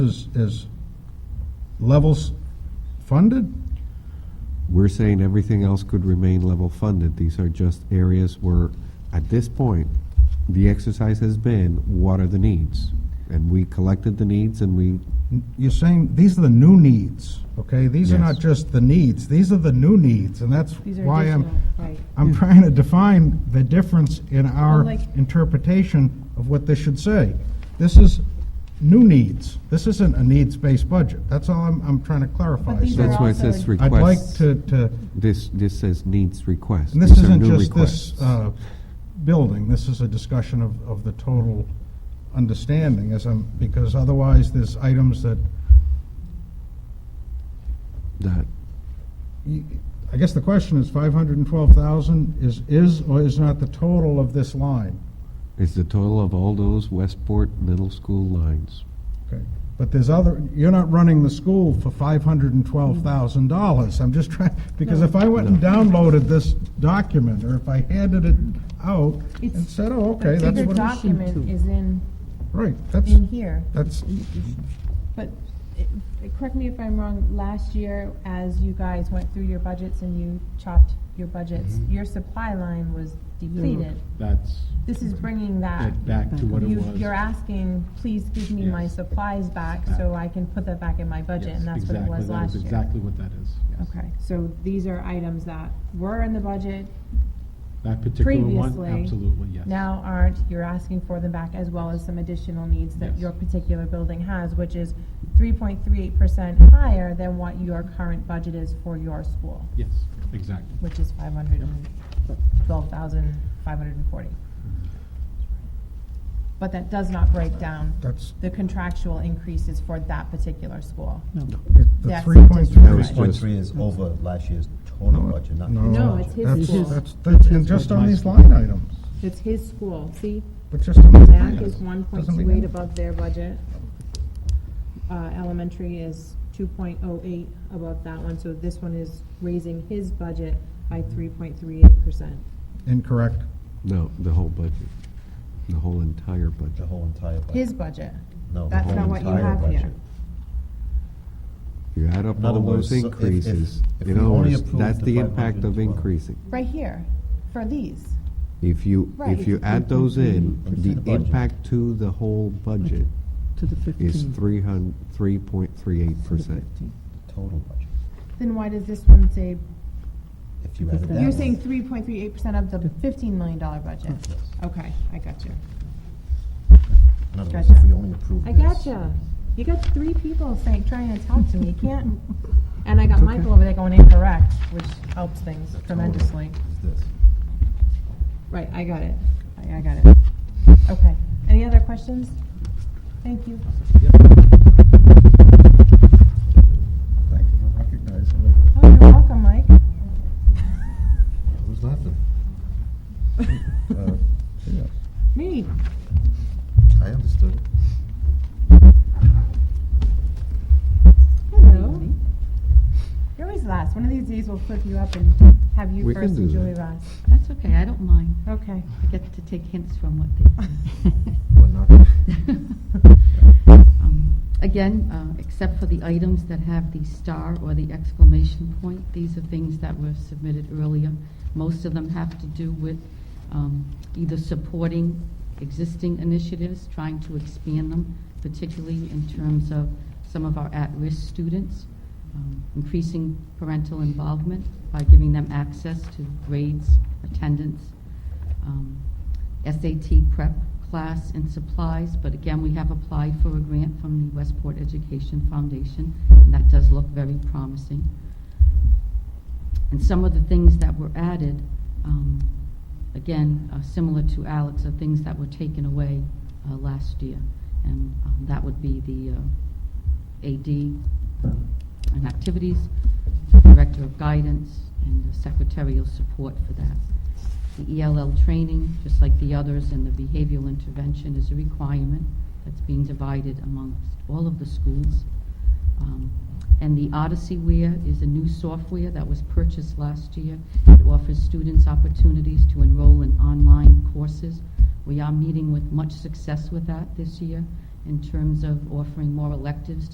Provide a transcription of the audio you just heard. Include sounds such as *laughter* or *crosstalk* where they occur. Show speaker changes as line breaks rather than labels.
is, is levels funded?
We're saying everything else could remain level funded. These are just areas where, at this point, the exercise has been, what are the needs? And we collected the needs and we,
You're saying, these are the new needs, okay? These are
Yes.
not just the needs, these are the new needs, and that's
These are
why I'm,
additional, right.
I'm trying to define the difference in our
Well, like-
interpretation of what this should say. This is new needs. This isn't a needs-based budget. That's all I'm, I'm trying to clarify.
But these
So
are
that's why it
also-
says
I'd like
requests.
to, to,
This, this says needs requests.
and this
These are
isn't
new
just this,
requests.
uh, building. This is a discussion of, of the total understanding as I'm, because otherwise there's items that,
That,
you- I guess the question is five hundred and twelve thousand is, is or is not the total of this line?
is the total of all those Westport Middle School lines.
Okay, But there's other, you're not running the school for five hundred and twelve thousand dollars. I'm just trying, because if I went and downloaded this document, or if I handed it out and
It's-
said, oh, okay,
The
that's
bigger
what it is.
document is in,
Right, that's,
in here.
that's,
But, it- it- correct me if I'm wrong, last year, as you guys went through your budgets and you chopped your budgets,
Mm-hmm.
your supply line was depleted.
That's
This is bringing that.
it back to what it
You,
was.
you're asking, please give me my
Yes.
supplies back
Back.
so I can put that back in my budget,
Yes,
and that's what it
exactly.
was
That
last year.
Exactly what that is. yes.
Okay, so these are items that were in the budget,
That particular one,
Previously,
absolutely, yes.
now aren't, you're asking for them back as well as some additional needs that
Yes.
your particular building has, which is three point three eight percent higher than what your current budget is for your school,
Yes, exactly.
which is five hundred and twelve thousand, five hundred and forty. But that does not break down
that's,
the contractual increases for that particular school.
it- the
That's
three point
That
three.
was
Three point three is over last year's total budget, not.
No, it's his
that's-
school.
That's, that's, and just on these line items,
It's his school, see,
but just on these line
MAC is
items.
one point
Doesn't
two
mean-
eight above their budget. Uh, elementary is two point oh eight above that one, so this one is raising his budget by three point three eight percent.
Incorrect.
No, the whole budget, the whole entire
The
budget.
whole entire budget.
His budget,
No, the
that's
whole
not what you
entire
have here.
budget.
You add up
In other
all
words,
those
so if- if-
increases,
if
you
we
know,
only
it's-
approved
that's
the
the impact of
512.
increasing.
right here, for these.
If you,
Right,
if you
it's
add those in,
It's
the
the budget.
impact to the whole budget
To the 15.
is three hun, three point three eight percent.
Total budget.
Then why does this one say,
If you added
Because
that.
you're
that's-
saying three point three eight percent of the fifteen million dollar budget? Okay, I got you.
In other words, if we only approve
I
this.
gotcha. You got three people saying, trying to talk to me. You can't. And I got Michael over there going incorrect, which helps things tremendously.
Is this.
Right, I got it. I, I got it. Okay. Any other questions? Thank you.
Thank you for recognizing it.
Oh, you're welcome, Mike.
Who's *laughs* laughing? Uh, yeah,
Me.
I understood.
Hello. You're always last. One of these days we'll flip you up and have you
We can
first and
do
Julie
that.
last.
That's okay, I don't mind.
Okay.
I get to take hints from what *laughs* they.
We're not. *laughs*
*laughs*
Um, Again, uh, except for the items that have the star or the exclamation point, these are things that were submitted earlier. Most of them have to do with um, either supporting existing initiatives, trying to expand them, particularly in terms of some of our at-risk students, um, increasing parental involvement by giving them access to grades, attendance, um, SAT prep class and supplies, but again, we have applied for a grant from the Westport Education Foundation, and that does look very promising. And some of the things that were added, um, again, uh, similar to Alex, are things that were taken away uh, last year. And um, that would be the uh, AD and activities, Director of Guidance, and the secretarial support for that. The ELL training, just like the others, and the behavioral intervention is a requirement that's being divided amongst all of the schools. Um, And the Odyssey Wear is a new software that was purchased last year. It offers students opportunities to enroll in online courses. We are meeting with much success with that this year, in terms of offering more electives